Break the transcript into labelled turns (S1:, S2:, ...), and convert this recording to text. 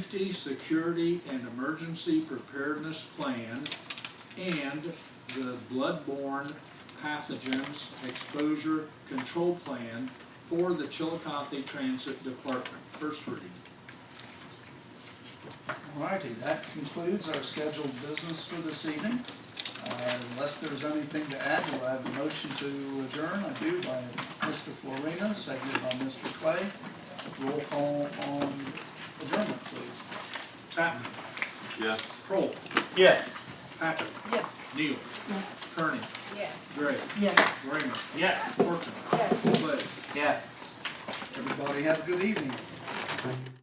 S1: Safety, Security, and Emergency Preparedness Plan and the Bloodborne Pathogens Exposure Control Plan for the Chillicothe Transit Department. First reading.
S2: Alrighty, that concludes our scheduled business for this evening. Uh, Unless there's anything to add, we'll have a motion to adjourn. I do by Mr. Florina, seconded by Mr. Clay. Roll call on adjournment, please.
S1: Tatman,
S3: Yes.
S1: Kroll,
S3: Yes.
S1: Patrick,
S4: Yes.
S1: Neal,
S4: Yes.
S1: Kearney,
S4: Yes.
S1: Gray,
S4: Yes.
S1: Rayner,
S3: Yes.
S1: Horton,
S4: Yes.
S1: Clay.
S3: Yes.
S2: Everybody have a good evening.